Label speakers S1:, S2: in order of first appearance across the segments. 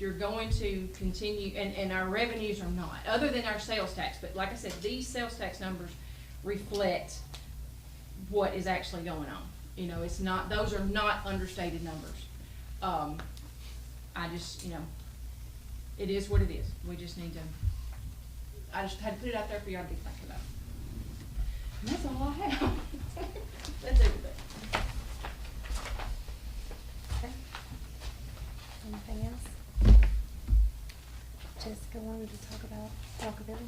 S1: you're going to continue, and, and our revenues are not, other than our sales tax, but like I said, these sales tax numbers reflect what is actually going on. You know, it's not, those are not understated numbers. Um, I just, you know, it is what it is. We just need to, I just had to put it out there for y'all to be thinking about. And that's all I have. That's everything.
S2: Okay. Anything else? Jessica wanted to talk about Walkerville.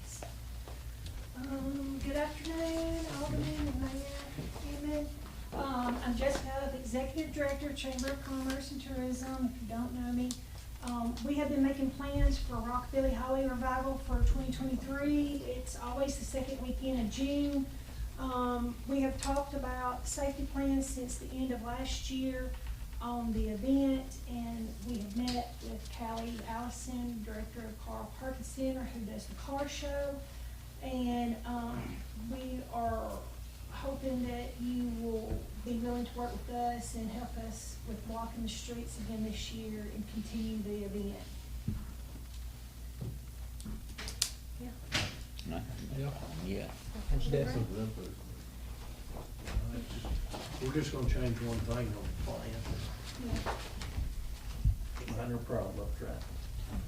S3: Yes. Um, good afternoon, Alderman and Mayor Hammond. Um, I'm Jessica, the Executive Director, Chamber of Commerce and Tourism, if you don't know me. Um, we have been making plans for Rockabilly Highway Revival for twenty twenty-three. It's always the second weekend of June. Um, we have talked about safety plans since the end of last year on the event, and we have met with Callie Allison, Director of Carl Perkins Center, who does the car show. And, um, we are hoping that you will be willing to work with us and help us with walking the streets again this year and continue the event.
S2: Yeah.
S4: No.
S5: Yeah.
S4: Yeah.
S5: We're just gonna change one thing on the plan, minor problem, right?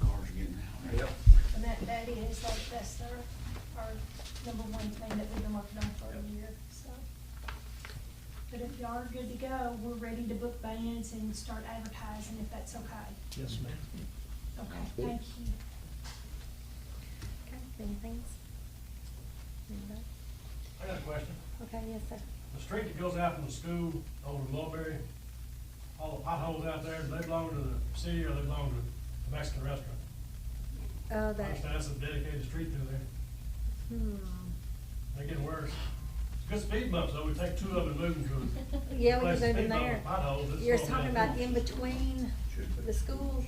S4: Cars getting out.
S5: Yep.
S3: And that, that is, like, that's our, our number one thing that we've been working on for a year, so. But if y'all are good to go, we're ready to book bands and start advertising if that's okay.
S5: Yes, ma'am.
S3: Okay,
S4: Sounds good.
S3: thank you.
S2: Okay, any things? Anybody?
S6: I got a question.
S2: Okay, yes, sir.
S6: The street that goes out from the school over to Mulberry, all the potholes out there, do they belong to the city or they belong to the Mexican restaurant?
S2: Oh,
S6: I
S2: that,
S6: understand that's a dedicated street through there.
S2: hmm.
S6: They're getting worse. It's Good speed bumps though. We take two of them and move them to. a
S2: Yeah, we
S6: place.
S2: can move them
S6: Speed bump
S2: there.
S6: and potholes, it's
S2: You're
S6: all
S2: talking
S6: bad.
S2: about in between the schools,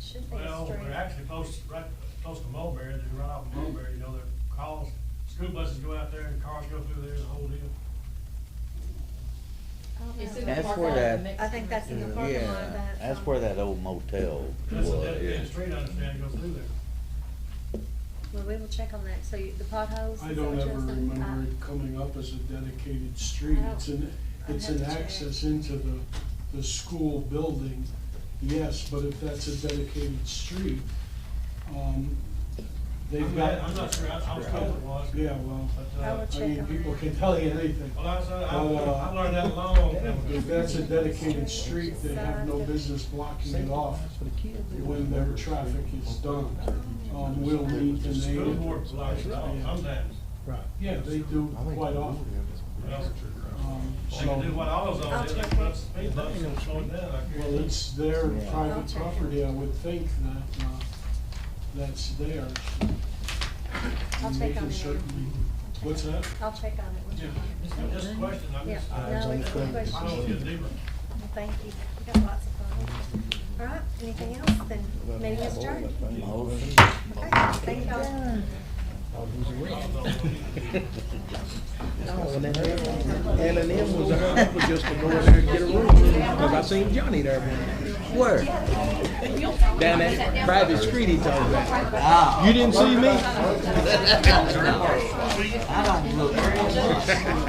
S2: should be a
S6: Well, they're
S2: street.
S6: actually close, right, close to Mulberry, they run off of Mulberry, you know, their calls, school buses go out there and cars go through there, the whole deal.
S2: I don't
S1: It's
S2: know.
S1: in the
S4: That's
S1: park
S4: where
S1: lot of
S4: that-
S1: the Mexican
S2: I think that's in the
S1: restaurant.
S2: parking lot of
S4: Yeah,
S2: that.
S4: that's
S2: um,
S4: where that old motel was.
S6: That's a dedicated
S4: yeah.
S6: street, I understand, goes through there.
S2: Well, we will check on that, so you- the potholes.
S7: I
S2: is Uh,
S7: don't
S2: what
S7: ever
S2: you're saying?
S7: remember it coming up as a dedicated street.
S2: I don't-
S7: It's an,
S2: I'd
S7: it's
S2: have
S7: an
S2: to check.
S7: access into the, the school building, yes, but if that's a dedicated street, um, they've
S6: I'm not, I'm
S7: got,
S6: not sure, I, I was told it was.
S7: yeah, well,
S6: But,
S2: I
S6: uh,
S2: will
S7: I
S2: check
S7: mean,
S2: on
S7: people
S2: that.
S7: can tell you anything.
S6: well, I, said- I,
S7: Well, uh,
S6: I learned that long, time
S7: If
S6: ago.
S7: that's a dedicated street, they have no business blocking it off when their traffic is done.
S2: Oh,
S7: Um, we'll need to
S6: school
S7: name it.
S6: board blocks it off sometimes.
S5: Right.
S7: Yeah, they do quite often.
S6: Well,
S7: Um,
S6: They
S7: so.
S6: can do what AutoZone did, they can put up speed bumps
S5: Nothing
S6: and
S5: else.
S6: slow it down. I
S7: Well,
S6: guarantee.
S7: it's their
S4: Yeah.
S2: I'll
S7: private
S2: check it.
S7: property, I would think that, uh, that's theirs.
S2: I'll
S7: And
S2: check on
S7: they can
S2: it.
S7: certainly-
S2: I'll check
S7: What's
S2: on
S7: that?
S2: it. I'll check on it. We'll check on it.
S6: Just- Just a question, I'm
S2: Yeah,
S6: just.
S2: no, it's a good
S6: I don't know if it's
S2: question.
S6: deeper.
S2: Well, Thank you. We got lots of fun. All right, anything else? Then meeting is adjourned.
S4: Motion.
S2: Okay, thank y'all.
S5: No, and then L and M was our, was just to go in there and get a room, cause I seen Johnny there one day. Where? Down at private street he told me. You didn't see me?
S4: I don't look.